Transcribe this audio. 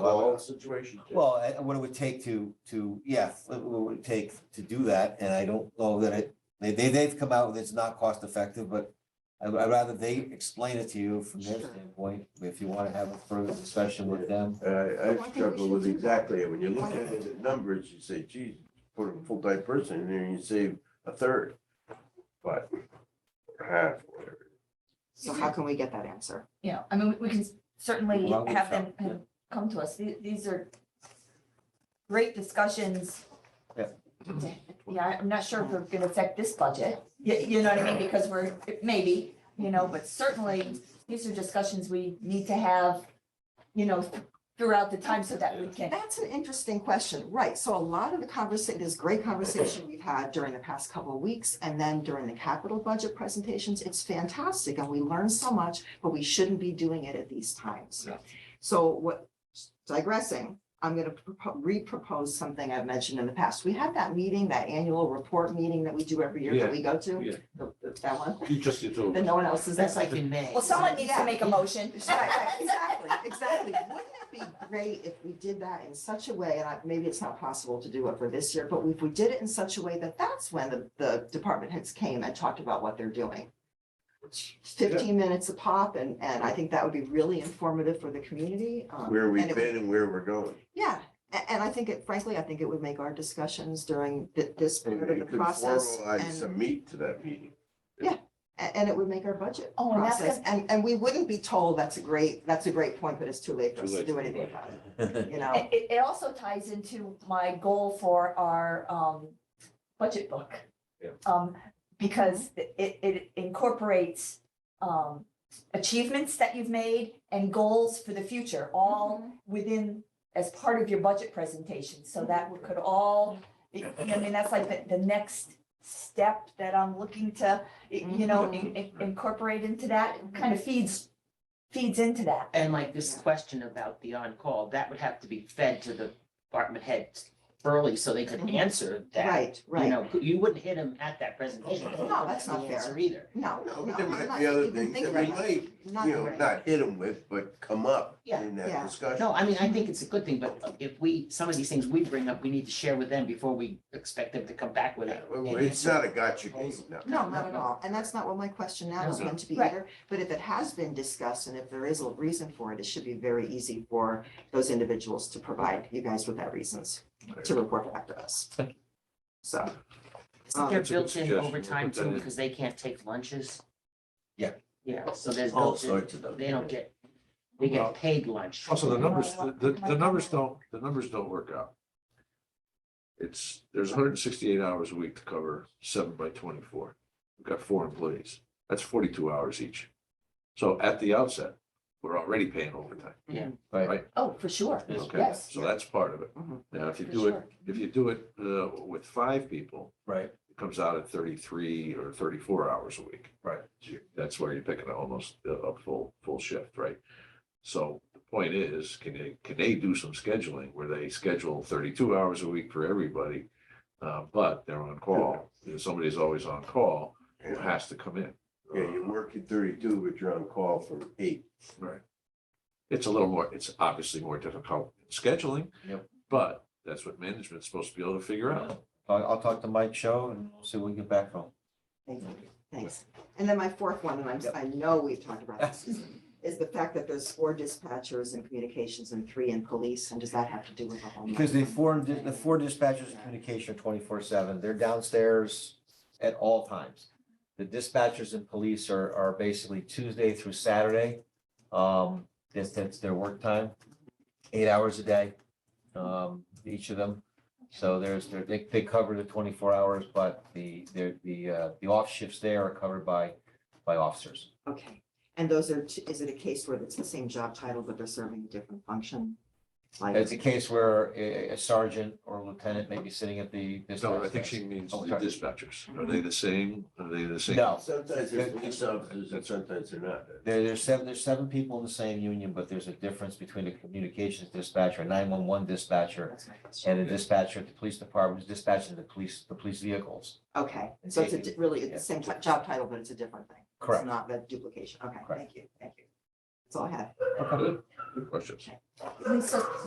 wall situation too. Well, I- what it would take to, to, yeah, what it would take to do that, and I don't know that it, they, they, they've come out with it's not cost effective, but I, I'd rather they explain it to you from their Sure. standpoint, if you wanna have a further discussion with them. And Uh, I, I I think we struggle should with do that. exactly, it. when you look Why at not? it, at numbers, you say, geez, put a full-time person in there and you save a third. But half, whatever. So how can we get that answer? Yeah, I mean, we- we can certainly Well, we have them shall, yeah. kind of come to us. The- These are great discussions. Yeah. Yeah, I- I'm not sure if we're gonna affect this budget. You, you know what I mean? Because we're, maybe, you know, but certainly these are discussions we need to have, you know, throughout the time so that we can. That's an interesting question, right? So a lot of the conversation, this great conversation we've had during the past couple of weeks and then during the capital budget presentations, it's fantastic and we learn so much, but we shouldn't be doing it at these times. Yeah. So what, digressing, I'm gonna propo- re-propose something I've mentioned in the past. We had that meeting, that annual report meeting that we do every year that we go to. yeah. The- That one, You just, it's over. that no one else is. That's at. like in May. Well, someone needs to Yeah. make a motion. Right, right, Exactly, exactly. Wouldn't it be great if we did that in such a way, and I- maybe it's not possible to do it for this year, but if we did it in such a way that that's when the, the department heads came and talked about what they're doing. Fifteen minutes a pop, and, and I think that would be really informative for the community. um, where and we've it would- been and where we're going. Yeah, a- and I think it, frankly, I think it would make our discussions during thi- this And period you of could the process. formalize and- some meat to that meeting. A- And it would make our budget Oh, and that's process, and, and we wouldn't be told, that's a great, that's a great point, but it's too late for us Too to late do to anything do about it, you know? It, it- it also ties into my goal for our, um, budget book. Yeah. Um, because it, it incorporates, um, achievements that you've made and goals for the future, all within, as part of your budget presentation, so that we could all, you know, I mean, that's like the, the next step that I'm looking to, you know, Mm-hmm. in- in- incorporate into that, kind of feeds, feeds into that. And like this question about the on-call, that would have to be fed to the department heads early so they could Mhm. answer that. Right, You right. know, you wouldn't hit them at that presentation. No, that's not the fair. answer Either. No, No, no, but there I'm might not be other even things that thinking we about might, it. Not you know, right. not hit them with, but come up Yeah, in yeah. that discussion. No, I mean, I think it's a good thing, but if we, some of these things we bring up, we need to share with them before we expect them to come back with it. Well, It's not a gotcha game, no. No, not at all. And that's not what my question now is No. meant to be Right. either. But if it has been discussed and if there is a reason for it, it should be very easy for those individuals to provide you guys with that reasons to report back to us. So. Isn't there That's a good built-in suggestion. We'll overtime put that too, in. because they can't take lunches? Yeah. Yeah, so there's Oh, All built-in, sorts of them. they don't get, they Well, get paid lunch. Also, the numbers, the, the- the numbers don't, the numbers don't work out. It's, there's hundred and sixty-eight hours a week to cover seven by twenty-four. We've got four employees. That's forty-two hours each. So at the outset, we're already paying overtime. Right, Right. Oh, for sure, Okay, yes. So that's part of it. Mhm. Now, if you For do it, sure. if you do it, uh, with five people, right, it comes out at thirty-three or thirty-four hours a week. Right. So you- That's where you're picking almost a- a full, full shift, right? So the point is, can they, can they do some scheduling where they schedule thirty-two hours a week for everybody? Uh, but they're on call, If somebody's always on call, who Yeah, has to come in. you work at thirty-two, but you're on call from eight. It's a little more, it's obviously more difficult in scheduling. Yep. But that's what management's supposed to be able to figure out. I'll, I'll talk to Mike Show and we'll see what we get back from. Thank you. Thanks. And then my fourth one, and I'm, I know we've talked about this, Susan, is the fact that there's four dispatchers in communications and three in police, and does that have to do with the whole? Because the four, the four dispatchers in communication are twenty-four seven, they're downstairs at all times. The dispatchers and police are, are basically Tuesday through Saturday. Um, that's, that's their work time, eight hours a day, um, each of them. So there's, they're- they, they cover the twenty-four hours, but the, the, the, uh, the off shifts there are covered by, by officers. Okay, and those are, t- is it a case where it's the same job title, but they're serving a different function? Like, It's a case where a a sergeant or lieutenant may be sitting at the dispatch. No, I think she desk. means the Oh, sorry. dispatchers. Are they the same? Are they the same? No, Sometimes they're police officers and sometimes they're not. There, there's seven, there's seven people in the same union, but there's a difference between a communications dispatcher, a nine-one-one dispatcher, that's my question. and a dispatcher at the police department who's dispatching the police, the police vehicles. Okay, so it's a di- really, it's Yeah. the same type- job title, but it's a different thing. Correct. It's not that duplication. Okay, Correct. thank you, thank you. That's all I have. Good. Good questions. Lisa,